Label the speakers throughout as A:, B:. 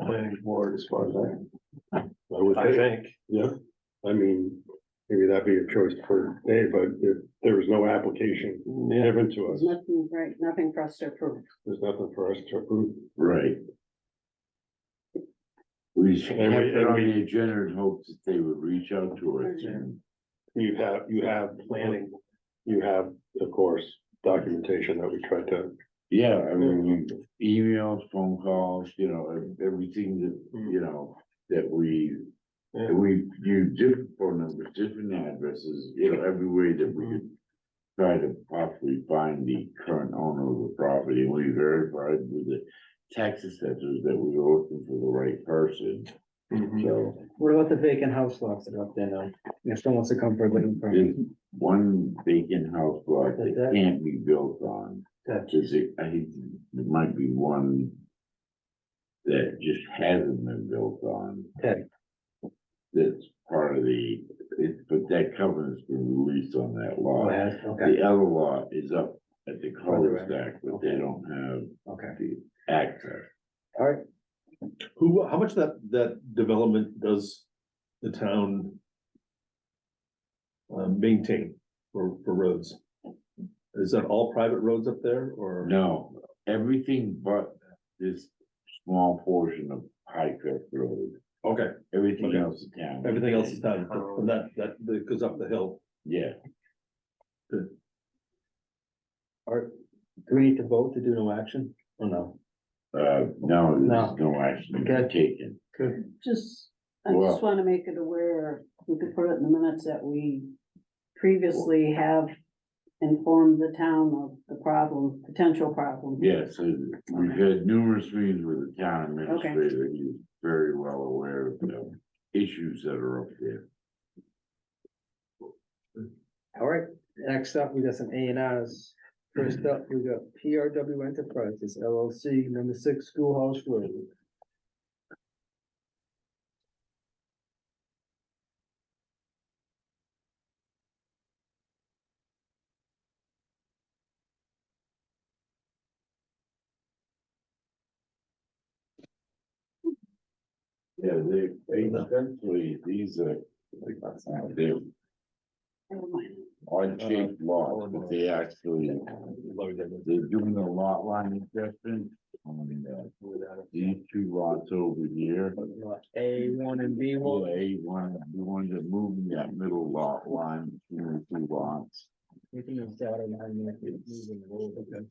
A: planning board as far as
B: I would
A: I, I
B: think,
A: think.
B: yeah, I mean, maybe that'd be a choice for Dave, but if there was no application
A: Yeah,
B: given to us,
C: There's nothing, right, nothing for us to approve.
B: there's nothing for us to approve.
D: Right. We should
B: And
D: have
B: we-
D: it
B: and
D: on
B: we-
D: the agenda and hope that they would reach out to us.
B: You have, you have planning, you have, of course, documentation that we tried to,
D: Yeah, I mean, we- emails, phone calls, you know, ev- everything that,
B: Mm.
D: you know, that we.
A: Yeah.
D: that We use different phone numbers, different addresses, you know, every way that we could. Try to possibly find the current owner of the property, and we verified with the tax assessors that we were looking for the right person,
B: Mm-hmm.
D: so.
E: What about the vacant house lots that are up there now? If someone wants to come for a living permit,
D: There's one vacant house lot that
E: That-
D: can't be built on.
E: That-
D: Is it, I think there might be one that just hasn't been built on.
E: Okay.
D: That's part of the, it, but that covenant's been released on that
E: go
D: lot.
E: ahead, okay,
D: The other lot is up at the cul-de-sac, but they don't have
E: okay,
D: the access.
E: all right.
A: Who, how much that, that development does the town um, maintain for, for roads? Is that all private roads up there or?
D: No, everything but this small portion of High Cliff Road,
A: Okay,
D: everything
A: Okay.
D: else is town.
A: everything else is done,
B: Um,
A: from that, that, that goes up the hill.
D: Yeah.
E: Do we need to vote to do no action or no?
D: Uh, no,
E: No.
D: there's no action
E: Okay.
D: taken.
C: Just, I just wanna make it aware, we could put it in the minutes that we previously have informed the town of the problem, potential problem.
D: Yeah, so we've had numerous meetings with the town administrator, he's very well aware of the issues that are up there.
E: All right, next up, we got some A and Rs. First up, we got PRW Enterprises LLC, number six Schoolhouse Road.
D: Yeah, they, they essentially, these are, they're
C: Never mind.
D: odd shaped lots, but they actually, they're doing a lot line adjustment. on uh, these two lots over here.
E: A one and B one.
D: Well, A one, the ones that moving that middle lot line, between the two lots.
E: You can use that or not, you can use it or whatever.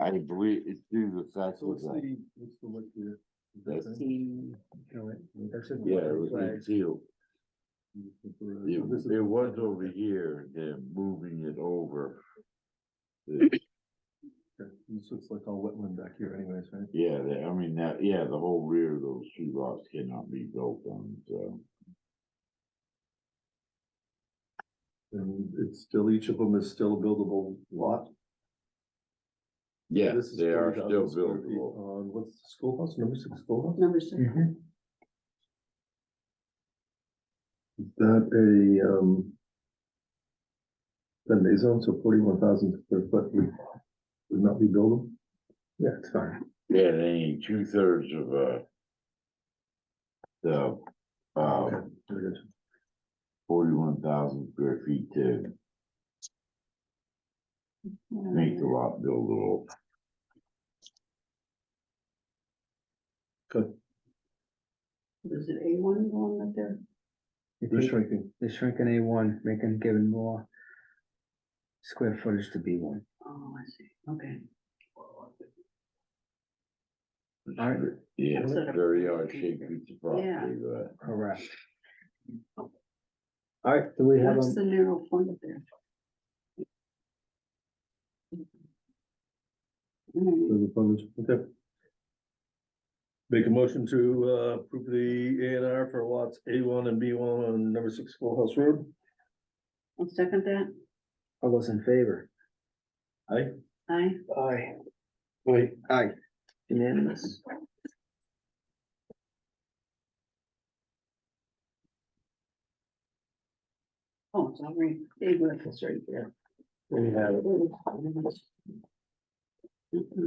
D: I believe it's due to the fact that, That's-
E: All right, that's just-
D: yeah, it was
E: Flag.
D: concealed. It, it was over here, they're moving it over. The-
A: This looks like all wetland back here anyways, right?
D: Yeah, the- I mean, that, yeah, the whole rear of those two lots cannot be built on, so.
A: And it's still, each of them is still a buildable lot.
D: Yeah,
A: This is
D: they are
A: 40,000
D: still
A: square feet
D: buildable.
A: On, what's the schoolhouse, number six schoolhouse?
C: Number six,
E: Mhm.
A: Is That a, um. Then they zone, so forty-one thousand square foot would, would not be buildable? Yeah, it's fine.
D: Yeah, they ain't two thirds of, uh. The, uh,
A: Okay, very good.
D: forty-one thousand square feet to make the lot buildable.
C: is it A one going up there?
E: I
A: They're
E: think
A: shrinking.
E: They're shrinking A one, making, giving more square footage to B one.
C: Oh, I see, okay.
E: Alright.
D: Yeah,
C: That's a-
D: very odd shaped piece of property, but.
E: Correct. All right, do we have,
C: What's
A: um,
E: a-
C: the narrow point up there? Mm.
A: Those opposed? Okay. Make a motion to, uh, approve the A and R for lots A one and B one on number six schoolhouse road.
C: I'll second that.
E: all those in favor?
A: Aye.
C: Aye.
E: Aye.
B: like,
E: Aye. Unanimous.
C: Oh, it's all right. Dave, that's right there.
A: We have
C: Mm-mm.